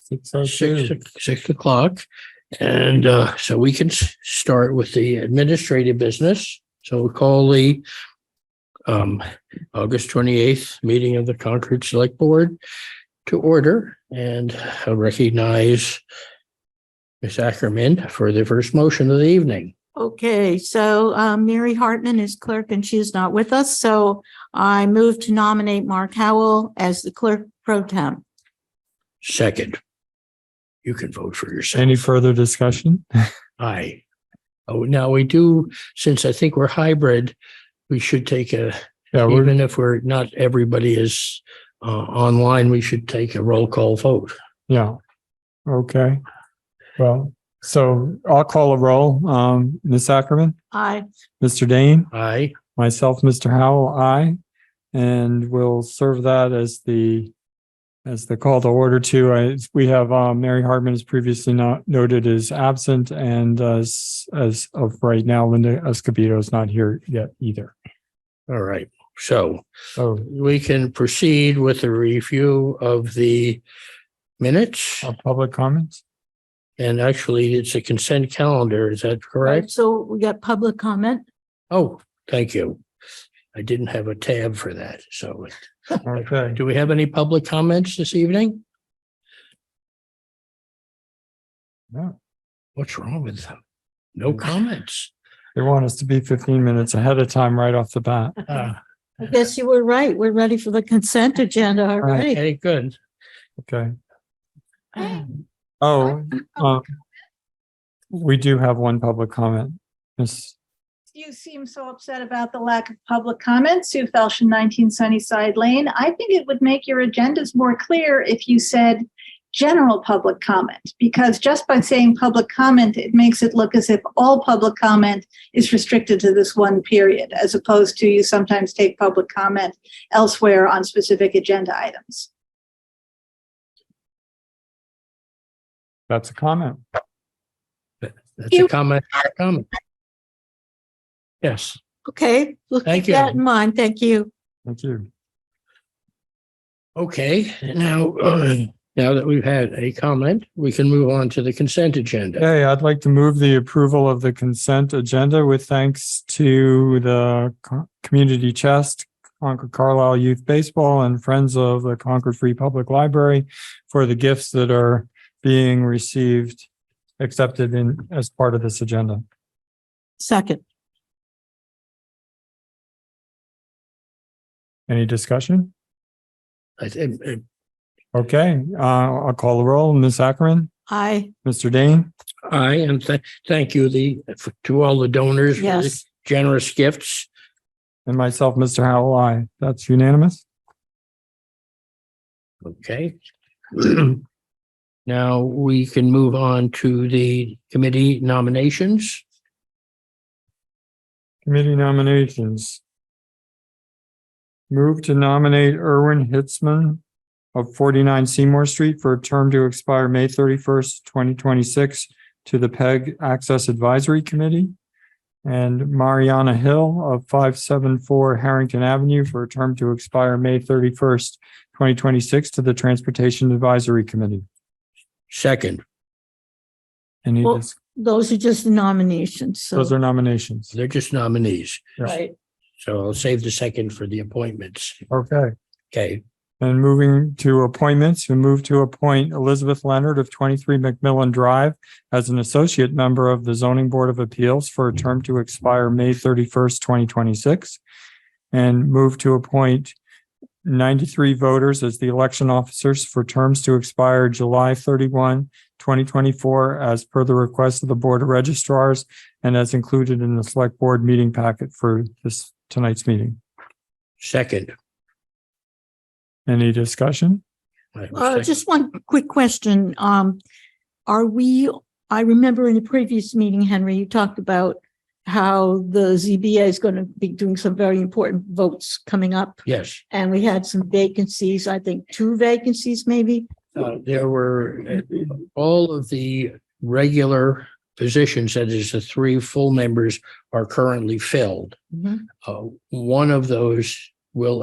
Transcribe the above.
Six oh six, two. six o'clock. And uh, so we can s- start with the administrative business. So we'll call the um, August twenty-eighth meeting of the Concord Select Board to order and I recognize Ms. Ackerman for the first motion of the evening. Okay, so uh, Mary Hartman is clerk and she is not with us, so I move to nominate Mark Howell as the clerk pro temp. Second, you can vote for yourself. Any further discussion? Aye. Oh, now we do, since I think we're hybrid, we should take a Yeah, we're, Even if we're not, everybody is uh, online, we should take a roll call vote. yeah. Okay. Well, so I'll call a roll. Um, Ms. Ackerman, I, Mr. Dane, Aye. myself, Mr. Howell, I, and we'll serve that as the as the call to order too. I, we have, uh Mary Hartman is previously not noted is absent and as, as of right now, Linda Escobedo is not here yet either. All right. So So we can proceed with the review of the minutes. uh, public comments? And actually, it's a consent calendar. Is that correct? so we got public comment. Oh, thank you. I didn't have a tab for that. So Okay. do we have any public comments this evening? No. What's wrong with them? No comments. They want us to be fifteen minutes ahead of time right off the bat. Ah, I guess you were right. We're ready for the consent agenda already. Okay, good. Okay. Oh, um, we do have one public comment. Miss, You seem so upset about the lack of public comment, Sue Felsham, 19 Sunnyside Lane. I think it would make your agendas more clear if you said general public comment, because just by saying public comment, it makes it look as if all public comment is restricted to this one period, as opposed to you sometimes take public comment elsewhere on specific agenda items. that's a comment. That's a comment, a comment. Yes, Okay, we'll Thank keep that you. in mind. Thank you. Thank you. okay, now, uh, now that we've had a comment, we can move on to the consent agenda. Hey, I'd like to move the approval of the consent agenda with thanks to the Co- Community Chest, Concord Carlisle Youth Baseball and Friends of the Concord Free Public Library for the gifts that are being received, accepted in, as part of this agenda. Second, Any discussion? I think, uh, Okay, uh, I'll call the roll. Ms. Ackerman, I, Mr. Dane, I and th- thank you, the, to all the donors. for the yes, Generous gifts. and myself, Mr. Howell, I. That's unanimous. Okay. Now we can move on to the committee nominations. Committee nominations. Move to nominate Erwin Hitzman of 49 Seymour Street for a term to expire May 31st, 2026 to the PEG Access Advisory Committee. And Mariana Hill of 574 Harrington Avenue for a term to expire May 31st, 2026 to the Transportation Advisory Committee. Second, Any, Well- dis- those are just the nominations. So, those are nominations. they're just nominees. right. So I'll save the second for the appointments. Okay. Okay, And moving to appointments, we move to appoint Elizabeth Leonard of 23 McMillan Drive as an associate member of the Zoning Board of Appeals for a term to expire May 31st, 2026. And move to appoint 93 voters as the election officers for terms to expire July 31, 2024, as per the request of the Board of Registrars and as included in the Select Board meeting packet for this, tonight's meeting. second. Any discussion? I have a Uh, second. just one quick question. Um, are we, I remember in the previous meeting, Henry, you talked about how the ZBA is going to be doing some very important votes coming up. Yes. And we had some vacancies, I think two vacancies maybe. Uh, there were uh, all of the regular positions, that is the three full members are currently filled. Mhm. Uh, one of those will